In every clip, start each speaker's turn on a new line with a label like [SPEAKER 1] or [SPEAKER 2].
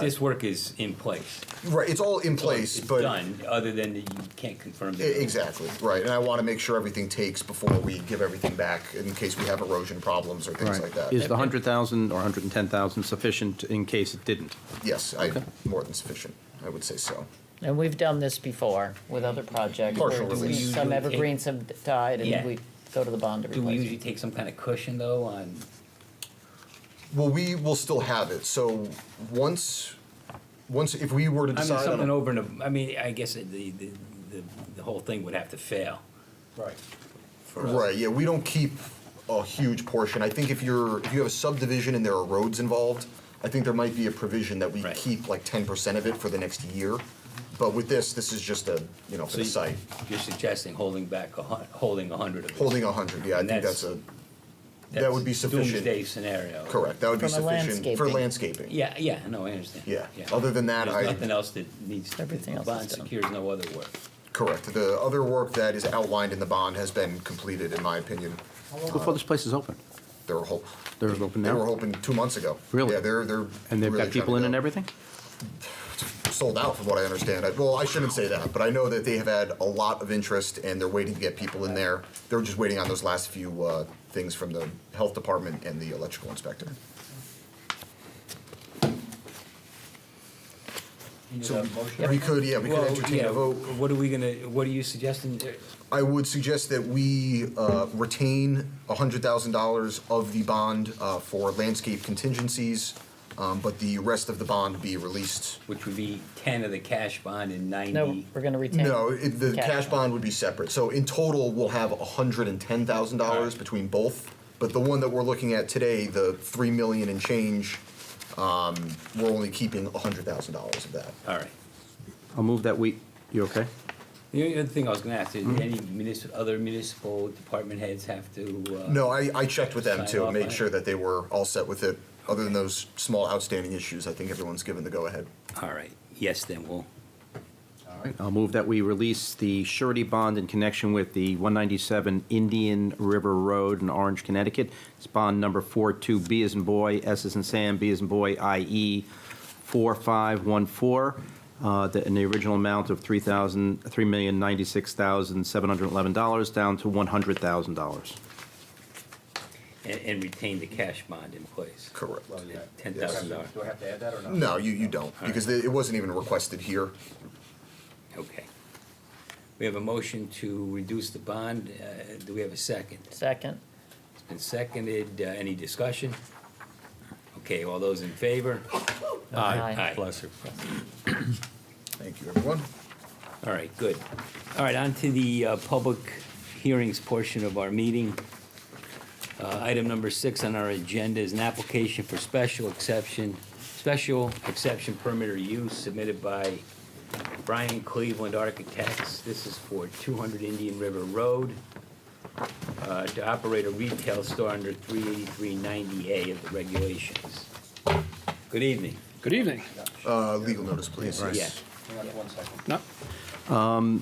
[SPEAKER 1] this work is in place.
[SPEAKER 2] Right, it's all in place,
[SPEAKER 1] It's
[SPEAKER 2] but
[SPEAKER 1] Done, other than that you can't confirm.
[SPEAKER 2] E-
[SPEAKER 1] the-
[SPEAKER 2] Exactly, right, and I want to make sure everything takes before we give everything back in case we have erosion problems or things
[SPEAKER 3] Right.
[SPEAKER 2] like that.
[SPEAKER 3] Is the 100,000 or 110,000 sufficient in case it didn't?
[SPEAKER 2] Yes, I, more than sufficient, I would say so.
[SPEAKER 4] And we've done this before with other projects. where
[SPEAKER 2] Partial
[SPEAKER 4] we-
[SPEAKER 2] release.
[SPEAKER 4] Some evergreens have died
[SPEAKER 1] Yeah.
[SPEAKER 4] and we go to the bond to
[SPEAKER 1] Do we
[SPEAKER 4] replace
[SPEAKER 1] usually
[SPEAKER 4] it.
[SPEAKER 1] take some kind of cushion though on,
[SPEAKER 2] Well, we will still have it, so once, once, if we were to
[SPEAKER 1] I mean,
[SPEAKER 2] decide
[SPEAKER 1] something
[SPEAKER 2] on,
[SPEAKER 1] over and, ab- I mean, I guess the, the, the, the whole thing would have to fail.
[SPEAKER 5] Right.
[SPEAKER 1] for us.
[SPEAKER 2] right, yeah, we don't keep a huge portion. I think if you're, if you have a subdivision and there are roads involved, I think there might be a provision that we
[SPEAKER 1] Right.
[SPEAKER 2] keep like ten percent of it for the next year. But with this, this is just a, you know, for
[SPEAKER 1] So
[SPEAKER 2] the
[SPEAKER 1] you-
[SPEAKER 2] site,
[SPEAKER 1] You're suggesting holding back, a hun- holding a hundred of it.
[SPEAKER 2] holding a hundred, yeah, I
[SPEAKER 1] And
[SPEAKER 2] think
[SPEAKER 1] that's-
[SPEAKER 2] that's a, that would be
[SPEAKER 1] That's
[SPEAKER 2] sufficient.
[SPEAKER 1] Doomsday scenario.
[SPEAKER 2] Correct, that would be
[SPEAKER 4] From a
[SPEAKER 2] sufficient for landscaping.
[SPEAKER 1] Yeah, yeah, no, I understand.
[SPEAKER 2] Yeah. Other than that,
[SPEAKER 1] There's
[SPEAKER 2] I-
[SPEAKER 1] Nothing else that needs,
[SPEAKER 4] Everything
[SPEAKER 1] the
[SPEAKER 4] else is
[SPEAKER 1] bond
[SPEAKER 4] done.
[SPEAKER 1] secures no other work.
[SPEAKER 2] Correct, the other work that is outlined in the bond has been completed, in my opinion.
[SPEAKER 3] Before this place is open?
[SPEAKER 2] They were hope,
[SPEAKER 3] They're open
[SPEAKER 2] they were
[SPEAKER 3] now?
[SPEAKER 2] open two months ago.
[SPEAKER 3] Really?
[SPEAKER 2] Yeah, they're, they're.
[SPEAKER 3] And they've
[SPEAKER 2] really
[SPEAKER 3] got people in
[SPEAKER 2] trying
[SPEAKER 3] and
[SPEAKER 2] to go.
[SPEAKER 3] everything?
[SPEAKER 2] Sold out, from what I understand. I- Well, I shouldn't say that, but I know that they have had a lot of interest and they're waiting to get people in there. They're just waiting on those last few, uh, things from the health department and the electrical inspector. So we could, yeah, we could
[SPEAKER 1] Well,
[SPEAKER 2] entertain
[SPEAKER 1] yeah,
[SPEAKER 2] a vote.
[SPEAKER 1] What are we gonna, what are you suggesting?
[SPEAKER 2] I would suggest that we uh, retain $100,000 of the bond uh, for landscape contingencies, um, but the rest of the bond be released.
[SPEAKER 1] Which would be ten of the cash bond and
[SPEAKER 4] No,
[SPEAKER 1] ninety.
[SPEAKER 4] we're gonna retain.
[SPEAKER 2] No, it- the
[SPEAKER 4] Cash
[SPEAKER 2] cash
[SPEAKER 4] bond.
[SPEAKER 2] bond would be separate. So in total, we'll have $110,000
[SPEAKER 1] Alright.
[SPEAKER 2] between both. But the one that we're looking at today, the 3 million and change, um, we're only keeping $100,000 of that.
[SPEAKER 1] All right.
[SPEAKER 3] I'll move that we, you okay?
[SPEAKER 1] The only other thing I was gonna ask, is
[SPEAKER 2] Mm-hmm.
[SPEAKER 1] any municipal, other municipal department heads have to, uh?
[SPEAKER 2] No, I, I checked with them
[SPEAKER 1] Sign
[SPEAKER 2] to
[SPEAKER 1] off on
[SPEAKER 2] make
[SPEAKER 1] it.
[SPEAKER 2] sure that they were all set with it. Other than those small outstanding issues, I think everyone's given the go-ahead.
[SPEAKER 1] All right, yes, then we'll,
[SPEAKER 3] I'll move that we release the surety bond in connection with the 197 Indian River Road in Orange, Connecticut. It's bond number 42B as in boy, S as in Sam, B as in boy, E IE 4514, uh, the- in the original amount of 3000 $3,096,711, down to $100,000.
[SPEAKER 1] and, and retain the cash bond in place. Oh,
[SPEAKER 2] Correct.
[SPEAKER 1] Ten thousand dollars,
[SPEAKER 5] Do I have to add that or not?
[SPEAKER 2] No, you, you don't, because it wasn't even requested here.
[SPEAKER 1] okay. We have a motion to reduce the bond, uh, do we have a second?
[SPEAKER 4] Second,
[SPEAKER 1] It's been seconded, uh, any discussion? Okay, all those in favor?
[SPEAKER 4] Aye.
[SPEAKER 1] Aye.
[SPEAKER 6] Bless you.
[SPEAKER 2] Thank you, everyone.
[SPEAKER 1] All right, good. All right, on to the uh, public hearings portion of our meeting. Uh, Item number six on our agenda is an application for special exception, special exception permit or use submitted by Brian Cleveland Architects. This is for 200 Indian River Road uh, to operate a retail store under 38390A of the regulations. Good evening.
[SPEAKER 6] Good evening.
[SPEAKER 2] Uh, legal notice, please.
[SPEAKER 1] Yeah.
[SPEAKER 5] Hang on one second.
[SPEAKER 6] No,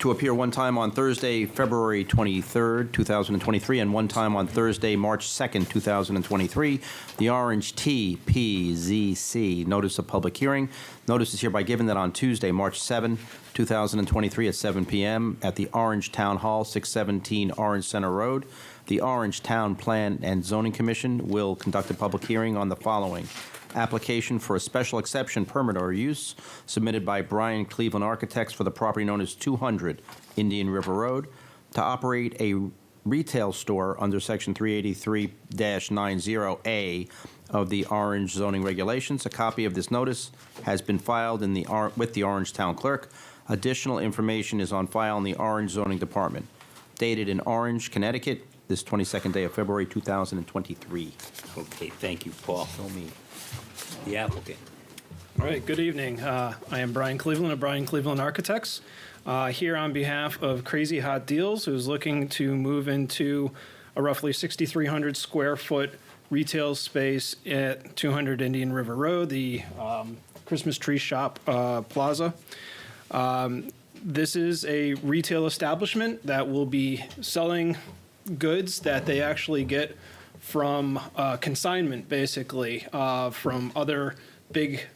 [SPEAKER 3] to appear one time on Thursday, February 23rd, 2023, and one time on Thursday, March 2nd, 2023. The Orange TPZC Notice of Public Hearing. Notice is hereby given that on Tuesday, March 7, 2023, at 7 p.m. at the Orange Town Hall, 617 Orange Center Road, the Orange Town Plan and Zoning Commission will conduct a public hearing on the following application for a special exception permit or use submitted by Brian Cleveland Architects for the property known as 200 Indian River Road to operate a retail store under Section 383-90A of the Orange zoning regulations. A copy of this notice has been filed in the, Or- with the Orange Town Clerk. Additional information is on file in the Orange Zoning Department, dated in Orange, Connecticut, this 22nd day of February 2023.
[SPEAKER 1] Okay, thank you, Paul. Show me. The applicant.
[SPEAKER 6] All right, good evening. Uh, I am Brian Cleveland of Brian Cleveland Architects, uh, here on behalf of Crazy Hot Deals, who's looking to move into a roughly 6,300 square foot retail space at 200 Indian River Road, the um, Christmas Tree Shop uh, Plaza. Um, this is a retail establishment that will be selling goods that they actually get from uh, consignment, basically, uh, from other big